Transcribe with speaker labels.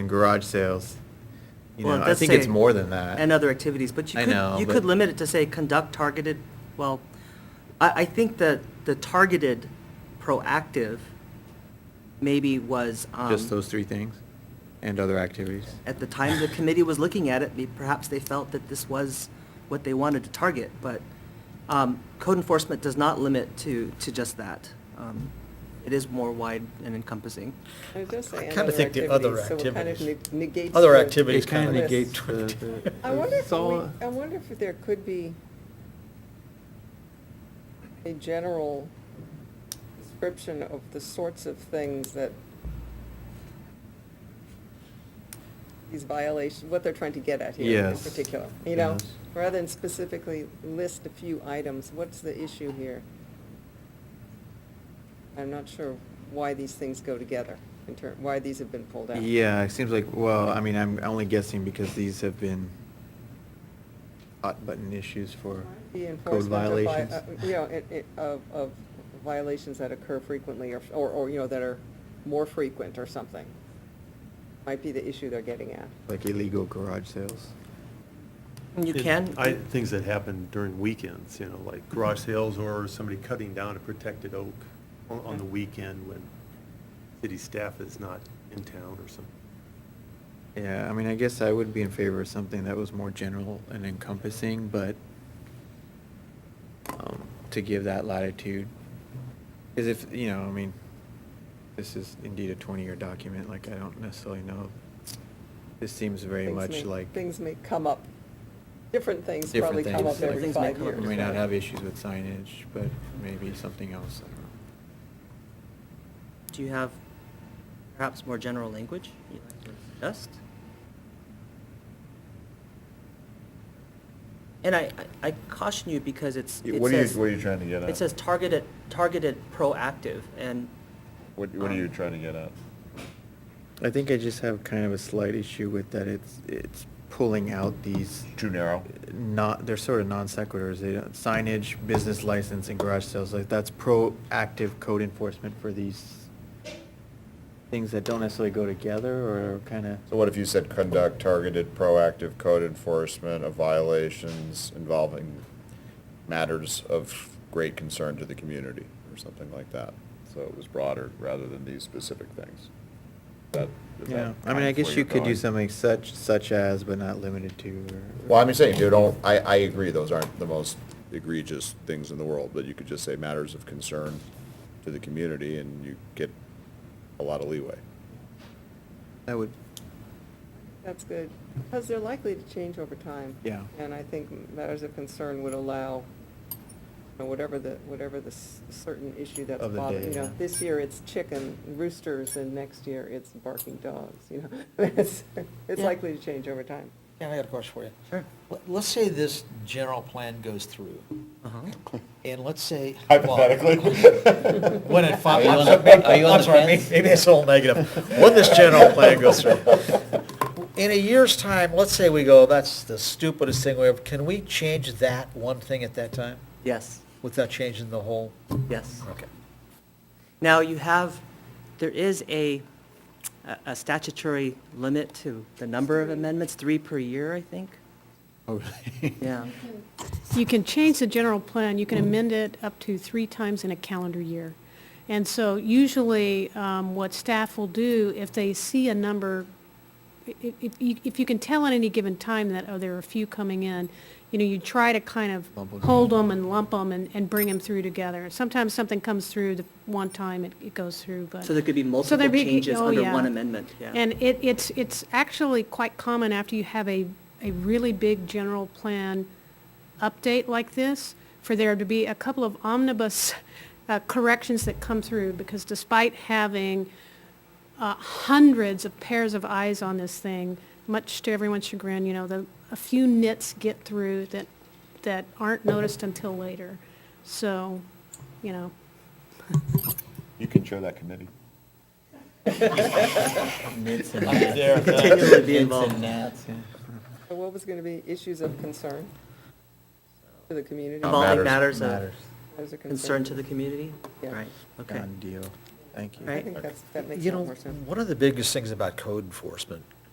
Speaker 1: and garage sales. You
Speaker 2: Well, it
Speaker 1: know, I
Speaker 2: does
Speaker 1: think it's
Speaker 2: say-
Speaker 1: more than that.
Speaker 2: And other activities, but you
Speaker 1: I know,
Speaker 2: could, you
Speaker 1: but-
Speaker 2: could limit it to say, conduct targeted, well, I, I think that the targeted proactive maybe was, um.
Speaker 1: Just those three things and other activities.
Speaker 2: At the time the committee was looking at it, may- perhaps they felt that this was what they wanted to target, but um, code enforcement does not limit to, to just that. Um, It is more wide and encompassing.
Speaker 3: I was gonna say.
Speaker 4: I kinda think the other
Speaker 3: So it kind
Speaker 4: activities.
Speaker 3: of negates.
Speaker 4: Other
Speaker 3: the-
Speaker 4: activities
Speaker 5: It kind of
Speaker 3: kinda-
Speaker 5: negates
Speaker 4: the-
Speaker 5: the.
Speaker 4: the-
Speaker 3: I wonder if
Speaker 5: it's all-
Speaker 1: uh,
Speaker 3: we, I wonder if there could be a general description of the sorts of things that these violations, what they're trying to get at here in
Speaker 1: Yes.
Speaker 3: particular, you know?
Speaker 1: Yes.
Speaker 3: Rather than specifically list a few items, what's the issue here? I'm not sure why these things go together, in ter, why these have been pulled out.
Speaker 1: Yeah, it seems like, well, I mean, I'm only guessing because these have been hot button issues for
Speaker 3: The
Speaker 1: code
Speaker 3: enforcement of, vi-
Speaker 1: violations.
Speaker 3: uh, you know, it- it- of, of violations that occur frequently or, or, or, you know, that are more frequent or something. Might be the issue they're getting at.
Speaker 1: Like illegal garage sales.
Speaker 2: And you
Speaker 4: It-
Speaker 2: can.
Speaker 4: I, things that happen during weekends, you know, like garage sales or somebody cutting down a protected oak on, on the weekend when city staff is not in town or something.
Speaker 1: Yeah, I mean, I guess I would be in favor of something that was more general and encompassing, but um, to give that latitude. Because if, you know, I mean, this is indeed a 20-year document, like, I don't necessarily know. This seems very
Speaker 3: Things
Speaker 1: much
Speaker 3: may-
Speaker 1: like.
Speaker 3: Things may come up, different things
Speaker 1: different
Speaker 3: probably come
Speaker 1: things,
Speaker 3: up
Speaker 1: like,
Speaker 3: every
Speaker 2: Things may
Speaker 3: five
Speaker 2: come up.
Speaker 3: years.
Speaker 1: We may not
Speaker 3: right?
Speaker 1: have issues with signage, but maybe something else, I don't know.
Speaker 2: Do you have perhaps more general language you'd like to suggest? And I, I I caution you because it's,
Speaker 6: Yeah,
Speaker 2: it
Speaker 6: What are you,
Speaker 2: says-
Speaker 6: what are you trying to get at?
Speaker 2: It says targeted, targeted proactive, and
Speaker 6: What, what are you
Speaker 2: um,
Speaker 6: trying to get at?
Speaker 1: I think I just have kind of a slight issue with that it's, it's pulling out these.
Speaker 6: Too narrow?
Speaker 1: Not, they're sort of non sequiturs, they don't, signage, business license, and garage sales, like, that's proactive code enforcement for these things that don't necessarily go together, or kind of.
Speaker 6: So what if you said conduct targeted proactive code enforcement of violations involving matters of great concern to the community, or something like that? So it was broader, rather than these specific things. That- is that
Speaker 1: Yeah, I mean,
Speaker 6: kind
Speaker 1: I
Speaker 6: of
Speaker 1: guess
Speaker 6: where
Speaker 1: you
Speaker 6: you're
Speaker 1: could do
Speaker 6: going?
Speaker 1: something such, such as, but not limited to, or.
Speaker 6: Well, I'm saying, dude, don't, I, I agree, those aren't the most egregious things in the world, but you could just say matters of concern to the community, and you get a lot of leeway.
Speaker 1: That would,
Speaker 3: That's good, because they're likely to change over time.
Speaker 1: Yeah.
Speaker 3: And I think matters of concern would allow, you know, whatever the, whatever the s- certain issue that's
Speaker 1: Of the
Speaker 3: bothering,
Speaker 1: day,
Speaker 3: you know,
Speaker 1: yeah.
Speaker 3: this year it's chicken roosters, and next year it's barking dogs, you know? It's it's
Speaker 2: Yeah.
Speaker 3: likely to change over time.
Speaker 7: Yeah, I got a question for you.
Speaker 2: Sure.
Speaker 7: Let- Let's say this general plan goes through, and let's say. well,
Speaker 6: Hypothetically.
Speaker 7: When it
Speaker 5: Are
Speaker 7: finally.
Speaker 5: you on the- are you on the
Speaker 7: I'm sorry,
Speaker 5: fence?
Speaker 7: may- Maybe it's all negative.
Speaker 5: When this general plan goes through.
Speaker 7: In a year's time, let's say we go, that's the stupidest thing we ever, can we change that one thing at that time
Speaker 2: yes,
Speaker 7: without changing the whole?
Speaker 2: yes.
Speaker 7: Okay.
Speaker 2: Now, you have, there is a, a- a statutory limit to the number of amendments, three per year, I think.
Speaker 1: oh, really?
Speaker 2: Yeah,
Speaker 8: You can change the general plan, you can amend it up to three times in a calendar year. And so usually, um, what staff will do, if they see a number, i- i- if, you- if you can tell at any given time that, oh, there are a few coming in, you know, you try to kind of
Speaker 1: Lump 'em
Speaker 8: hold
Speaker 1: in.
Speaker 8: them and lump them and, and bring them through together. Sometimes something comes through the one time, it, it goes through, but.
Speaker 2: so there could be
Speaker 8: So
Speaker 2: multiple
Speaker 8: there'd be-
Speaker 2: changes
Speaker 8: oh,
Speaker 2: under
Speaker 8: yeah.
Speaker 2: one amendment, yeah.
Speaker 8: And it, it's, it's actually quite common after you have a, a really big general plan update like this, for there to be a couple of omnibus uh, corrections that come through, because despite having uh, hundreds of pairs of eyes on this thing, much to everyone's chagrin, you know, the, a few nits get through that, that aren't noticed until later. So, you know,
Speaker 6: You can chair that committee.
Speaker 1: Mitts and
Speaker 7: I'm
Speaker 1: hats.
Speaker 7: there, uh,
Speaker 2: Continually be
Speaker 7: it's in
Speaker 2: involved.
Speaker 7: that.
Speaker 3: So what was going to be issues of concern to the community?
Speaker 6: Involved.
Speaker 2: Involving
Speaker 6: matters.
Speaker 2: matters of
Speaker 3: Matters of
Speaker 2: concern to the community?
Speaker 3: Yeah.
Speaker 2: Right, okay.
Speaker 1: Done deal. Thank you.
Speaker 2: Right.
Speaker 3: I think that's, that makes a
Speaker 7: You
Speaker 3: lot
Speaker 7: know,
Speaker 3: more sense.
Speaker 7: one of the biggest things about code enforcement